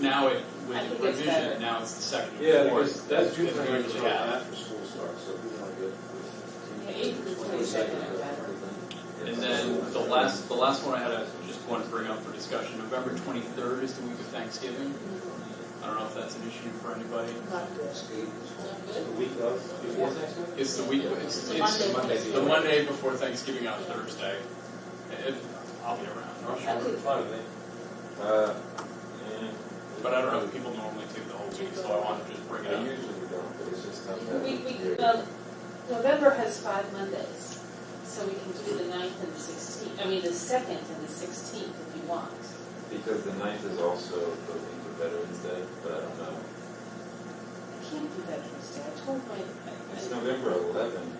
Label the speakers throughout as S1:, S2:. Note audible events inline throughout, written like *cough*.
S1: now it, with
S2: I
S1: the
S2: think it's better.
S1: revision, now it's the second and
S3: Yeah,
S1: fourth
S3: because that's
S1: that we
S3: usually when
S1: usually have.
S3: after school starts, so we want to
S2: Yeah,
S3: get.
S2: eighth to twenty-second is better.
S1: And then the last, the last one I had, I just want to bring up for discussion, November twenty-third is the week of Thanksgiving. I don't know if that's an issue for anybody.
S3: The week of, before Thanksgiving?
S1: It's the week, it's,
S2: The
S1: it's
S2: Monday.
S1: the Monday before Thanksgiving on Thursday. If- I'll be around,
S2: That would-
S3: Fine, with me. Uh,
S1: but I don't know if people normally take the whole week, so I wanted to just bring it
S3: I
S1: up.
S3: usually don't, but it's just not that.
S2: We, we, well, November has five Mondays, so we can do the ninth and the sixteenth, I mean, the second and the sixteenth if you want.
S4: Because the ninth is also the week of Veterans Day, but I don't know.
S2: I can't do Veterans Day, I told my,
S4: It's
S2: I-
S4: November eleventh,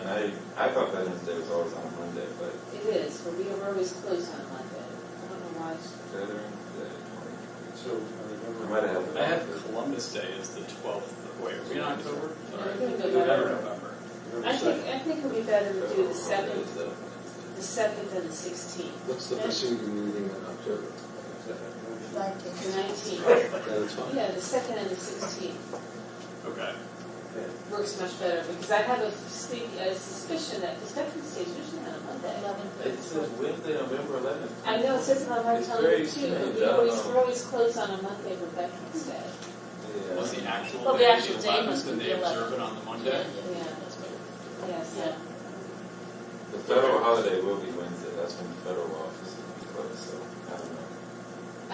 S4: and I, I thought Veterans Day was always on a Monday, but
S2: I- it is, but we are always closed on Monday. I don't know why.
S4: Veterans Day, twenty.
S3: So, I
S4: I
S3: remember.
S4: might have had
S1: I have Columbus Day is the twelfth, wait, are we in October? Sorry.
S2: I think
S1: November,
S2: November-
S1: November.
S3: Remember
S2: I think,
S3: second.
S2: I think it'd be better to do the
S4: Veterans
S2: seventh,
S4: Day is
S2: the seventh and the sixteenth,
S5: What's the preceding meeting in October?
S2: the nineteenth.
S5: That's fine.
S2: Yeah, the second and the sixteenth
S1: Okay,
S2: works much better, because I have a spe- a suspicion that, because Veterans Day is usually on a Monday.
S4: the- It says Wednesday, November eleventh.
S2: I know, it says it on my
S4: It's
S2: calendar too,
S4: very
S2: but
S4: soon,
S2: we
S4: I
S2: always,
S4: don't know.
S2: we're always closed on a Monday for Veterans Day.
S1: was the actual
S2: Well, the
S1: day
S2: actual
S1: the
S2: day
S1: eleventh
S2: must be
S1: and they
S2: the 11th.
S1: observe it on the Monday?
S2: Yes, yeah.
S4: The federal holiday will be Wednesday, that's when the federal office will be closed, so I don't know.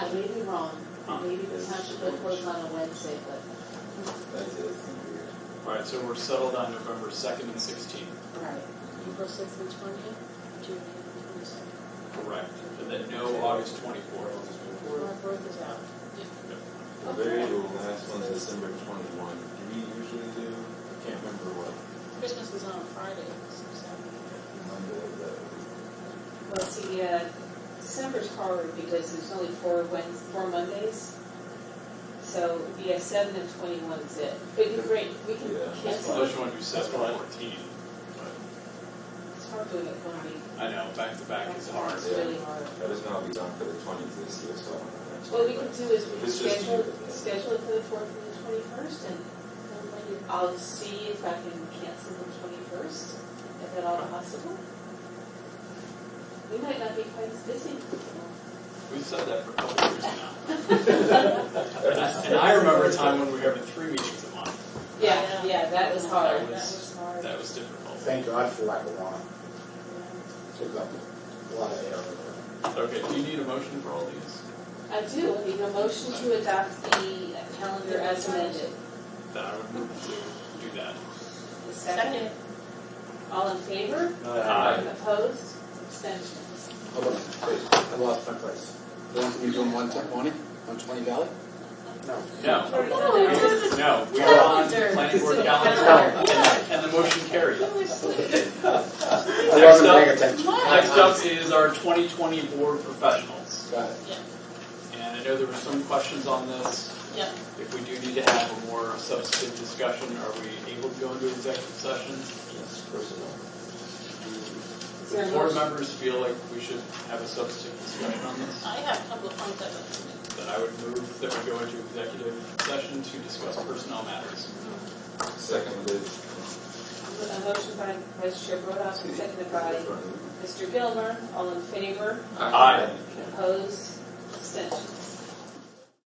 S2: I may be wrong,
S1: Huh.
S2: maybe the township will close on a Wednesday, but,
S4: That's it, it's gonna be weird.
S1: All right, so we're settled on November second and sixteenth.
S2: right.
S6: April sixth and twentieth, June eighth and twenty-second.
S1: Correct. And then no August twenty-fourth.
S6: My birth is out.
S4: The very last one's December twenty-one. Do we usually do? I can't remember what
S6: Christmas is on a Friday, so Saturday.
S4: Monday of that week.
S2: Well, see, yeah, December's hard because there's only four Wednes, four Mondays. So, yeah, seven and twenty-one is it. It'd be great, we can
S4: Yeah.
S2: cancel it.
S1: Unless you want to do seven
S3: That's
S1: and
S3: fine.
S1: fourteen. But
S2: It's hard doing it one week.
S1: I know, back to back is hard.
S2: It's really hard.
S4: I just know I'll be gone for the twentieth this year, so I don't know. next
S2: What we
S4: year,
S2: can
S4: but-
S2: do is we can
S4: It's just
S2: schedule,
S4: you.
S2: schedule it for the fourth and the twenty-first, and I'll see if I can cancel the twenty-first, if at all possible. We might not be quite as *laughs* busy.
S1: We've said that for a couple of years now. And I remember a time when we were having three meetings a month.
S2: Yeah, yeah, that was hard.
S1: That was, that was difficult.
S5: Thank God for lack of one. Took up a lot of air.
S1: Okay, do you need a motion for all these?
S2: I do, need a motion to adopt the calendar as amended.
S1: Then I would move to do that.
S2: A Second. All in favor?
S1: Aye.
S2: Opposed? Abstentions? *laughs*
S5: Hold on, wait, I lost my place. Don't you doing one twenty, one twenty Valley?
S1: No,
S2: No.
S1: no, we are on
S2: Calendar.
S1: planning board calendar.
S2: Calendar.
S1: And- And the motion carried.
S5: I wasn't paying attention.
S1: Next up is our 2020 board professionals.
S5: Got it.
S1: And I know there were some questions on this.
S6: Yeah.
S1: If we do need to have a more substantive discussion, are we able to go into executive sessions?
S3: Yes, personnel.
S2: Is there a
S1: Do board
S2: motion?
S1: members feel like we should have a substantive discussion on this?
S6: I have a couple of points I'd like to make.
S1: Then I would move that we go into executive session to discuss personnel matters.
S4: Second Liz.
S2: A motion by Vice Chair Brodhoff, seconded by Mr. Gilmer, all in favor,
S1: Aye.
S2: opposed,